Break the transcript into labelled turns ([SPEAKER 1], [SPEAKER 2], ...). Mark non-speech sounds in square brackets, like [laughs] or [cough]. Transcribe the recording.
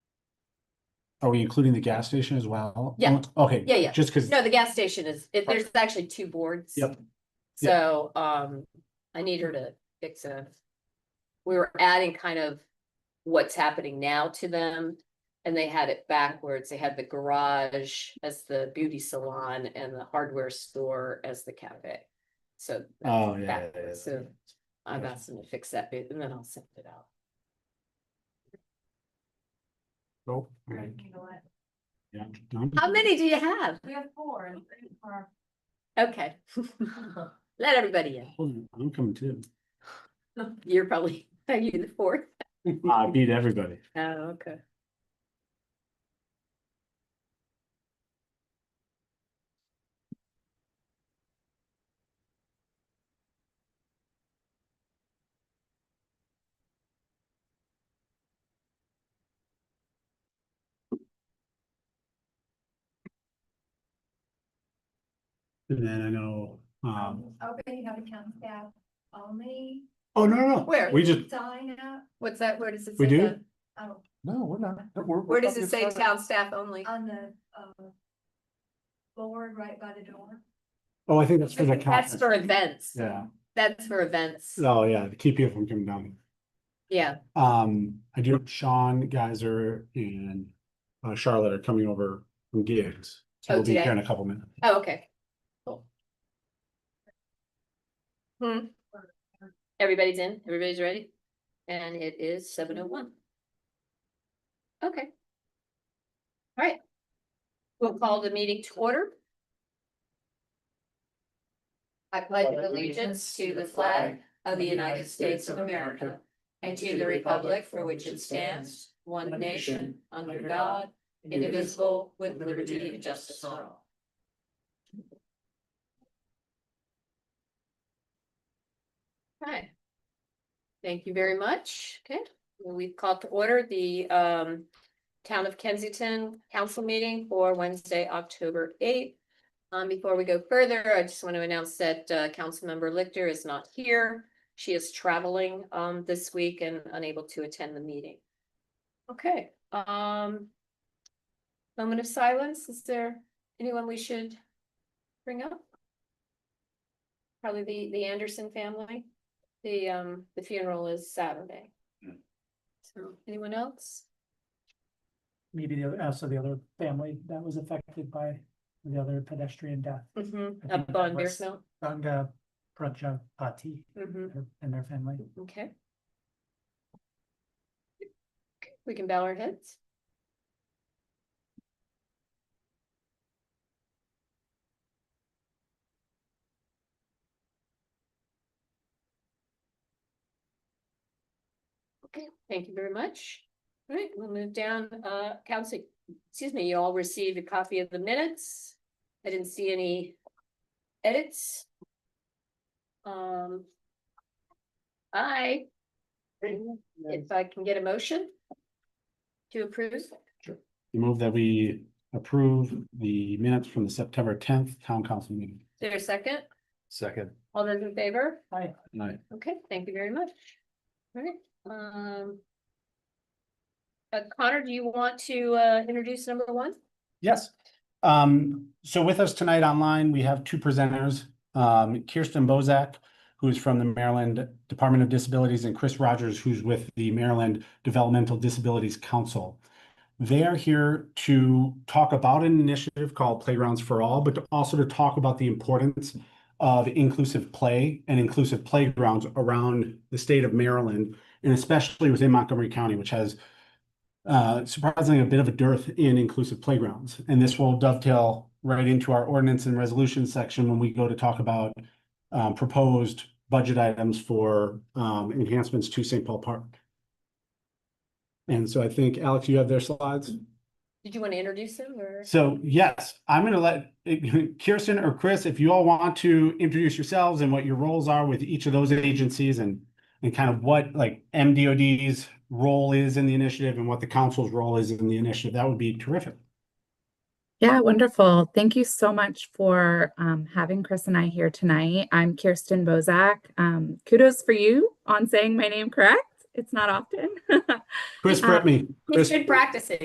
[SPEAKER 1] Are we including the gas station as well?
[SPEAKER 2] Yeah.
[SPEAKER 1] Okay.
[SPEAKER 2] Yeah, yeah.
[SPEAKER 1] Just because,
[SPEAKER 2] No, the gas station is, it, there's actually two boards.
[SPEAKER 1] Yep.
[SPEAKER 2] So, um, I need her to fix a. We were adding kind of what's happening now to them. And they had it backwards. They had the garage as the beauty salon and the hardware store as the cafe. So. that's
[SPEAKER 1] oh, yeah, yeah. yeah,
[SPEAKER 2] backwards.
[SPEAKER 1] yeah.
[SPEAKER 2] So I've asked them to fix that bit and then I'll send it out.
[SPEAKER 1] Nope. Okay.
[SPEAKER 3] You know what?
[SPEAKER 1] Yeah. Done.
[SPEAKER 2] How many do you have?
[SPEAKER 3] We have four and three for.
[SPEAKER 2] Okay. [laughs] Let everybody in.
[SPEAKER 1] Hold on, I'm coming too.
[SPEAKER 2] You're probably, [laughs] are you the fourth?
[SPEAKER 1] I beat everybody.
[SPEAKER 2] Oh, okay.
[SPEAKER 1] And then I know, um,
[SPEAKER 3] Open, you have a town staff only.
[SPEAKER 1] oh, no, no, no.
[SPEAKER 2] Where?
[SPEAKER 1] We just,
[SPEAKER 3] Sign up,
[SPEAKER 2] What's that? Where does it
[SPEAKER 1] We
[SPEAKER 2] say
[SPEAKER 1] do?
[SPEAKER 2] that?
[SPEAKER 3] oh,
[SPEAKER 1] no, we're not. we're- we're
[SPEAKER 2] Where does
[SPEAKER 1] fucking
[SPEAKER 2] it say
[SPEAKER 1] excited.
[SPEAKER 2] town staff only?
[SPEAKER 3] on the, uh. Board right by the door.
[SPEAKER 1] Oh, I think that's for the
[SPEAKER 2] That's
[SPEAKER 1] conference.
[SPEAKER 2] for events.
[SPEAKER 1] Yeah.
[SPEAKER 2] That's for events.
[SPEAKER 1] Oh, yeah, to keep people from coming down.
[SPEAKER 2] Yeah,
[SPEAKER 1] Um, I do, Sean Geiser and uh, Charlotte are coming over from gigs. So
[SPEAKER 2] Oh,
[SPEAKER 1] we'll be
[SPEAKER 2] today?
[SPEAKER 1] here in a couple minutes.
[SPEAKER 2] oh, okay. Cool. Hmm. Everybody's in, everybody's ready? And it is seven oh one. Okay. All right. We'll call the meeting to order. I pledge allegiance to the flag of the United States of America and to the republic for which it stands, one nation, under God, indivisible, with liberty and justice for all. Okay. Thank you very much. Okay, well, we've called to order the um Town of Kensington Council meeting for Wednesday, October eighth. Um, before we go further, I just want to announce that uh Councilmember Lichter is not here. She is traveling um this week and unable to attend the meeting. Okay, um. Moment of silence, is there anyone we should bring up? Probably the the Anderson family, the um, the funeral is Saturday.
[SPEAKER 1] Hmm.
[SPEAKER 2] So, anyone else?
[SPEAKER 4] maybe the other, also the other family that was affected by the other pedestrian death.
[SPEAKER 2] Mm-hmm,
[SPEAKER 4] I think
[SPEAKER 2] up on
[SPEAKER 4] that was-
[SPEAKER 2] Bearsmill,
[SPEAKER 4] Ranga Prajapati
[SPEAKER 2] mm-hmm,
[SPEAKER 4] her- and their family.
[SPEAKER 2] okay. We can bow our heads. Okay, thank you very much. All right, we'll move down, uh, council, excuse me, you all received a copy of the minutes. I didn't see any edits. Um. I, if I can get a motion. To approve,
[SPEAKER 1] Move that we approve the minutes from the September tenth town council meeting.
[SPEAKER 2] Is there a second,
[SPEAKER 5] Second.
[SPEAKER 2] all those in favor?
[SPEAKER 4] Hi,
[SPEAKER 1] Right.
[SPEAKER 2] Okay, thank you very much. Alright, um. uh, Connor, do you want to uh introduce number one?
[SPEAKER 1] Yes. Um, so with us tonight online, we have two presenters, um, Kirsten Bozak, who's from the Maryland Department of Disabilities, and Chris Rogers, who's with the Maryland Developmental Disabilities Council. They are here to talk about an initiative called Playgrounds for All, but to also to talk about the importance of inclusive play and inclusive playgrounds around the state of Maryland, and especially within Montgomery County, which has uh, surprisingly a bit of a dearth in inclusive playgrounds. And this will dovetail right into our ordinance and resolution section when we go to talk about um, proposed budget items for um, enhancements to St. Paul Park. And so I think, Alex, you have their slides?
[SPEAKER 2] Did you want to introduce him or?
[SPEAKER 1] So yes, I'm gonna let [laughs] Kirsten or Chris, if you all want to introduce yourselves and what your roles are with each of those agencies and and kind of what like MDOD's role is in the initiative and what the council's role is in the initiative, that would be terrific.
[SPEAKER 6] Yeah, wonderful. Thank you so much for um, having Chris and I here tonight. I'm Kirsten Bozak. Um, kudos for you on saying my name correct. It's not often. [laughs]
[SPEAKER 1] Chris, prep me.
[SPEAKER 2] It's
[SPEAKER 1] Chris-
[SPEAKER 2] good practices.